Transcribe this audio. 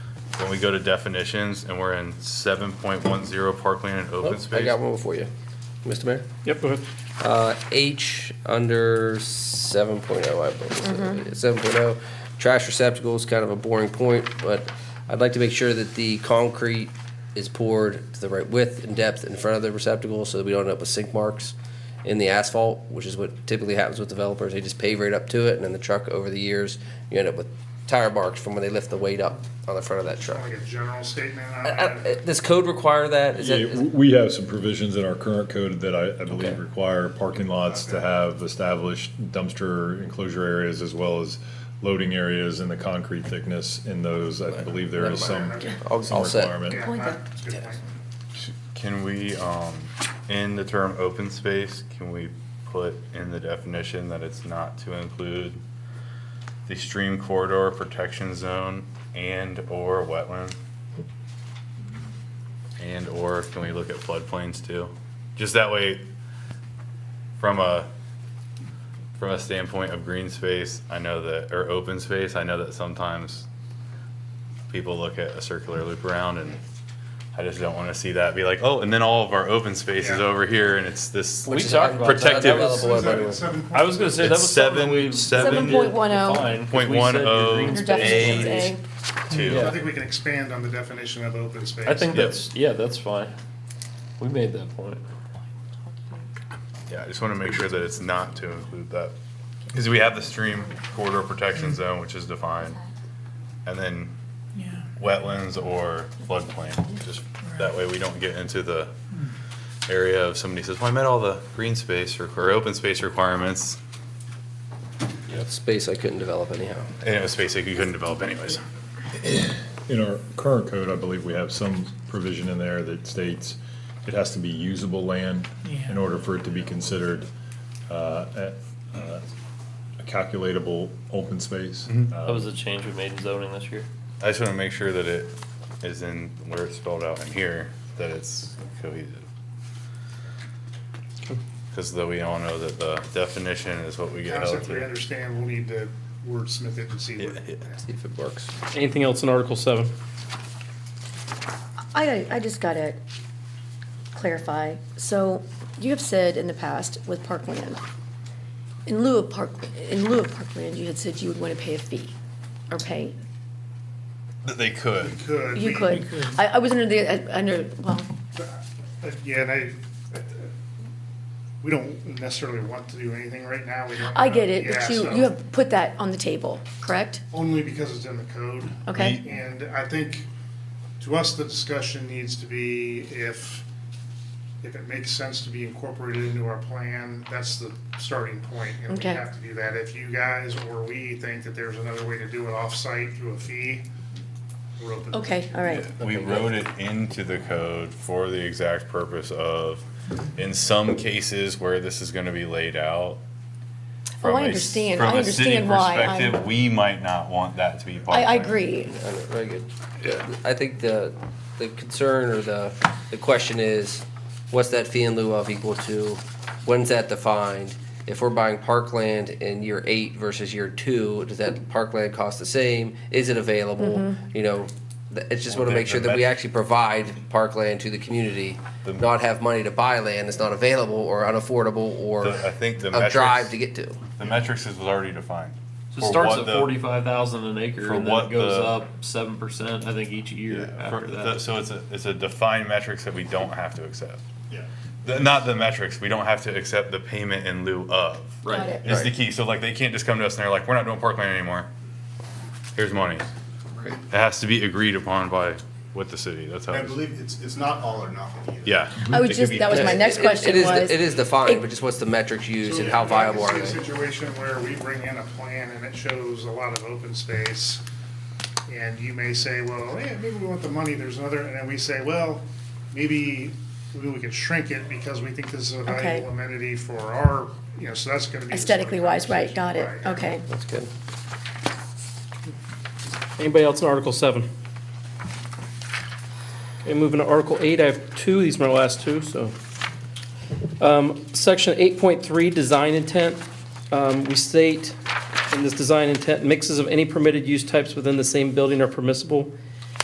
we go to definitions, and we're in seven point one zero parkland and Oh, open I space. got one more for you, Mr. Mayor. Yep, go ahead. Uh, H under seven oh, I believe, seven oh, trash receptacle is kind of a boring point, but I'd like to make sure that the concrete is poured to the right width and depth in front of the receptacle so that we don't end up with sink marks in the asphalt, which is what typically happens with developers. They just pave right up to it and then the truck over the years, you end up with tire marks from when they lift the weight up on the front of that truck. Like a general statement on Uh, that. uh, Does code require that? Is that? Yeah, is- w- we have some provisions in our current code that I, I Okay. believe require parking lots to have established dumpster enclosure areas as well as loading areas and the concrete thickness in those. I believe there is some, All- some all set. requirement. Yeah, uh, Point that- that's a good point. Can we, um, in the term open space, can we put in the definition that it's not to include the stream corridor protection zone and/or wetland? And/or can we look at floodplains too? Just that way, from a, from a standpoint of green space, I know that, or open space, I know that sometimes people look at a circular loop around and I just don't want to see that be like, oh, and then all of our open space is Yeah. over here and it's this We which is talked about that. protective- undevelopable, So is by that the way. at seven I was gonna say, that It's was something seven- we. seven defined, 'cause point we one said your oh green Your space definition's is- A. too. I Yeah. think we can expand on the definition of open space. I think Yep. that's, yeah, that's fine. We made that point. Yeah, I just want to make sure that it's not to include that. Because we have the stream corridor protection zone, which is defined, and then wetlands or floodplain. Just that way we don't get into the area of somebody says, well, I met all the green space or, or open space requirements. Space I couldn't develop anyhow. And it was space that you couldn't develop anyways. In our current code, I believe we have some provision in there that states it has to be usable land in order for it to be considered uh, a uh, a calculatable open space. Uh, That was the change we made in zoning this year. I just want to make sure that it is in where it's spelled out in here, that it's cohesive. Because though we all know that the definition is what we get held Concept we to. understand, we'll need to wordsmith it and see what. Yeah, yeah. See if it works. Anything else in Article seven? I, I just gotta clarify. So you have said in the past with parkland, in lieu of park, in lieu of parkland, you had said you would wanna pay a fee or pay, That they could. Could. you be- could. I, I was under the, uh, under, well, But Yeah, and I, uh, we don't necessarily want to do anything right now. We don't I know. get it, Yeah, but you, so- you have put that on the table, correct? Only because it's in the code. Okay. And I think, to us, the discussion needs to be if, if it makes sense to be incorporated into our plan, that's the starting point, And we Okay. have to do that. If you guys or we think that there's another way to do it off-site through a fee, we're open. Okay, all right. We wrote it into the code for the exact purpose of, in some cases where this is gonna be laid out. from Oh, I a s- understand. from I a city understand why I'm- perspective, We might not want that to be. part I, I of it. agree. I know, Very good. I think the, the concern or the, the question is, what's that fee in lieu of equal to? When's that defined? If we're buying parkland in year eight versus year two, does that parkland cost the same? Is it available? You know, th- it's just want to Well, make the- sure the that we met- actually provide parkland to the community, The- not have money to buy land that's not available or unaffordable or The- I think the a metrics- drive to get to. The metrics is was already defined. So it For starts what at the- forty-five thousand an acre for and then what it goes the- up seven percent, I think, each year Yeah, for- after the- that. So it's a, it's a defined metrics that we don't have to accept. Yeah. The- Not the metrics, we don't have to accept the payment in lieu of. Got Right. it. Is the key. So like they can't just come to us and they're like, we're not doing parkland anymore. Here's money. It has to be agreed upon by, with the city. That's how. I it is. believe it's, it's not all or nothing either. Yeah. I It was could just, be- that was my It- next it- question It is, was. it is defined, but just what's the metrics used and how viable are So, they? if you see a Situation where we bring in a plan and it shows a lot of open space, and you may say, well, yeah, maybe we want the money, there's another, and then we say, well, maybe, maybe we can shrink it because we think this is a Okay. valuable amenity for our, you know, so that's gonna be. a separate Aesthetically wise, right, got it, Right. okay. That's good. Anybody else in Article seven? Okay, moving to Article eight, I have two, these are my last two, so. Um, Section eight point three, design intent. Um, we state in this design intent, mixes of any permitted use types within the same building are permissible